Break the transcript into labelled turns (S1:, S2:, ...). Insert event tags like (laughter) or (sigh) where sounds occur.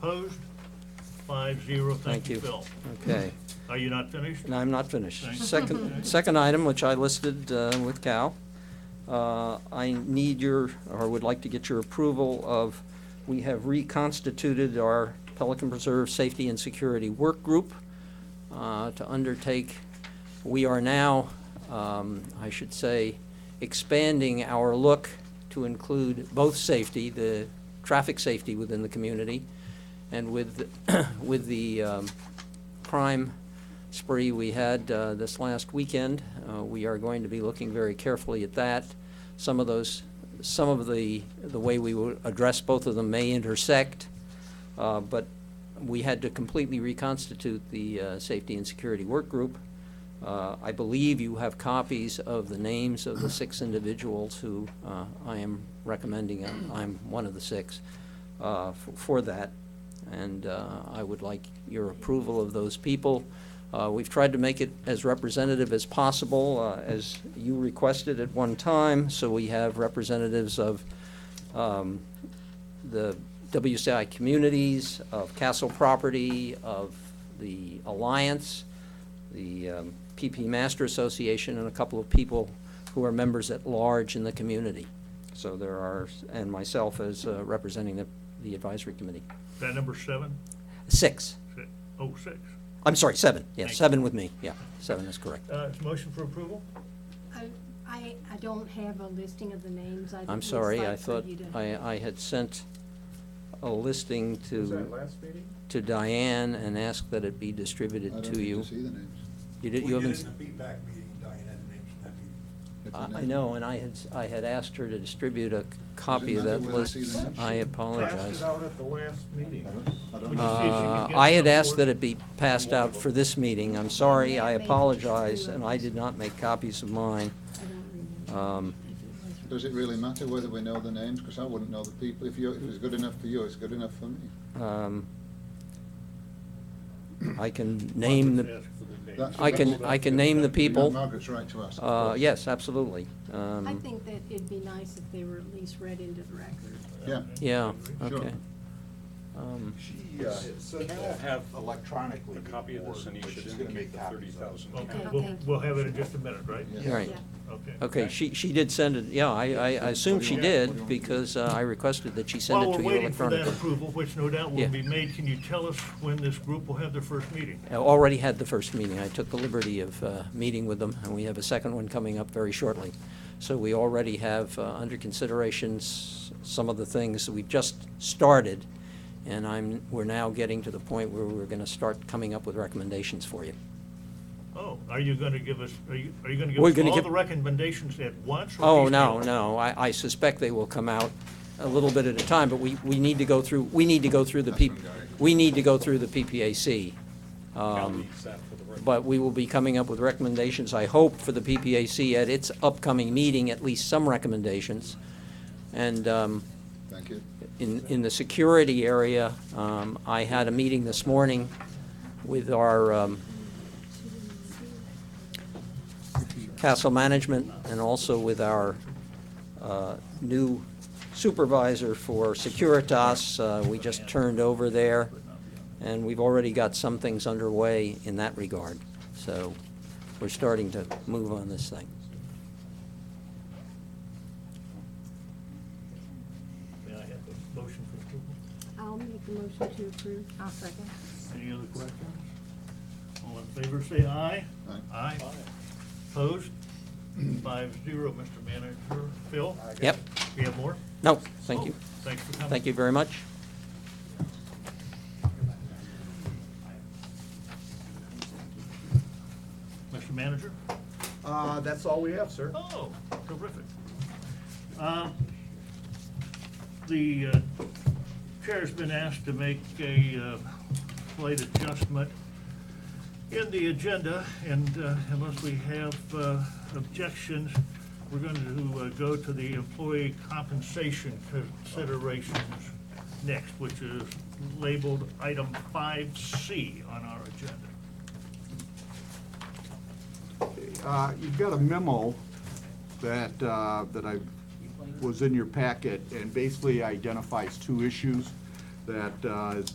S1: Opposed? Five zero.
S2: Thank
S1: Thank you,
S2: you.
S1: Phil.
S2: Okay,
S1: Are you not finished?
S2: and I'm not finished.
S1: Thank you.
S2: Second, second item, which I listed uh, with Cal, uh, I need your, or would like to get your approval of, we have reconstituted our Pelican Preserve Safety and Security Work Group uh, to undertake, we are now, um, I should say, expanding our look to include both safety, the traffic safety within the community, and with, (coughs) with the um, crime spree we had uh, this last weekend, uh, we are going to be looking very carefully at that. Some of those, some of the, the way we will address both of them may intersect, uh, but we had to completely reconstitute the uh, Safety and Security Work Group. Uh, I believe you have copies of the names of the six individuals who uh, I am recommending, I'm- I'm one of the six, uh, f- for that. And uh, I would like your approval of those people. Uh, We've tried to make it as representative as possible, uh, as you requested at one time, so we have representatives of um, the WCI communities, of Castle Property, of the Alliance, the um, PP Master Association, and a couple of people who are members at large in the community. So there are, and myself as uh, representing the the advisory committee.
S1: Is that number seven?
S2: Six,
S1: Si- Oh, six.
S2: I'm sorry, seven, yeah,
S1: Thank you.
S2: seven with me, yeah, seven is correct.
S1: Uh, it's motion for approval?
S3: I, I I don't have a listing of the names. I'd
S2: I'm
S3: just
S2: sorry,
S3: like
S2: I
S3: for
S2: thought,
S3: you to-
S2: I, I had sent a listing
S4: Was that
S2: to,
S4: last meeting?
S2: to Diane and asked that it be
S5: I
S2: distributed
S5: don't
S2: to
S5: think
S2: you.
S5: see the names.
S2: You
S6: We
S2: did, you
S6: did it
S2: haven't,
S6: in the feedback meeting, Diane had the names in that meeting.
S5: It's
S2: I
S5: in
S2: I
S5: there.
S2: know, and I had, I had asked her to distribute a copy of
S5: another
S2: that
S5: way to
S2: list.
S5: see the names?
S2: I
S4: Passed
S2: apologize.
S4: it out at the last meeting.
S5: I
S1: Would
S5: don't
S1: you
S5: know.
S1: see if you can
S2: Uh,
S1: get
S2: I had
S1: some
S2: asked
S1: board-
S2: that it be passed out for this meeting, I'm sorry, I apologize, and I did not make copies of mine.
S3: I don't remember
S2: Um,
S3: if it was-
S5: Does it really matter whether we know the names? Because I wouldn't know the people. If you, if it's good enough for you, it's good enough for me.
S2: um, I can name the,
S1: Ask for the names.
S5: That's-
S2: I can, I can name the
S5: You know
S2: people.
S5: Margaret's right to ask. of
S2: Uh,
S5: course.
S2: Yes, absolutely. Um,
S3: I think that it'd be nice if they were at least read into the record.
S5: Yeah.
S2: Yeah,
S5: Sure.
S2: okay. Um,
S6: She, uh, sent
S7: Cal have
S6: that electronically.
S7: a copy of this,
S6: before,
S7: and you
S6: but
S7: should
S6: she's gonna
S7: indicate
S6: make
S7: the
S6: copies of it.
S7: 30,000.
S1: Okay,
S3: Okay.
S1: we'll, we'll have it in just a minute, right?
S5: Yeah.
S2: All right.
S3: Yeah.
S1: Okay.
S2: Okay, she, she did send it, yeah, I, I I assume she did, because uh, I requested that she send it to you
S1: While we're waiting for that
S2: electronically.
S1: approval, which no doubt
S2: Yeah.
S1: will be made, can you tell us when this group will have their first meeting?
S2: I already had the first meeting, I took the liberty of uh, meeting with them, and we have a second one coming up very shortly. So we already have uh, under consideration s- some of the things that we've just started, and I'm, we're now getting to the point where we're going to start coming up with recommendations for you.
S1: Oh, are you gonna give us, are you, are you gonna give
S2: We're
S1: us
S2: gonna
S1: all
S2: give-
S1: the recommendations at once? or
S2: Oh, no,
S1: piecemeal?
S2: no, I, I suspect they will come out a little bit at a time, but we, we need to go through, we need to go through the
S5: That's
S2: P,
S5: from Gary.
S2: we need to go through the PPAC. Um, But we will be coming up with recommendations, I hope, for the PPAC at its upcoming meeting, at least some recommendations. And, um,
S5: Thank you.
S2: in, in the security area, um, I had a meeting this morning with our, um, castle management and also with our, uh, new supervisor for Securitas. Uh, we just turned over there, and we've already got some things underway in that regard. So we're starting to move on this thing.
S1: May I have a motion for approval?
S3: I'll make the motion to approve. I'll second.
S1: Any other questions? All in favor, say aye.
S5: Aye.
S1: Aye. Opposed? Five zero, Mr. Manager. Phil?
S2: Yep,
S1: We have more?
S2: no, thank you.
S1: Oh, Thanks for coming.
S2: Thank you very much.
S1: Mr. Manager?
S4: Uh, that's all we have, sir.
S1: Oh, terrific. Um, The uh, chair's been asked to make a uh, slight adjustment in the agenda, and uh, unless we have uh, objections, we're going to uh, go to the employee compensation considerations next, which is labeled item 5C on our agenda.
S4: Uh, You've got a memo that, uh, that I, was in your packet, and basically identifies two issues that uh, is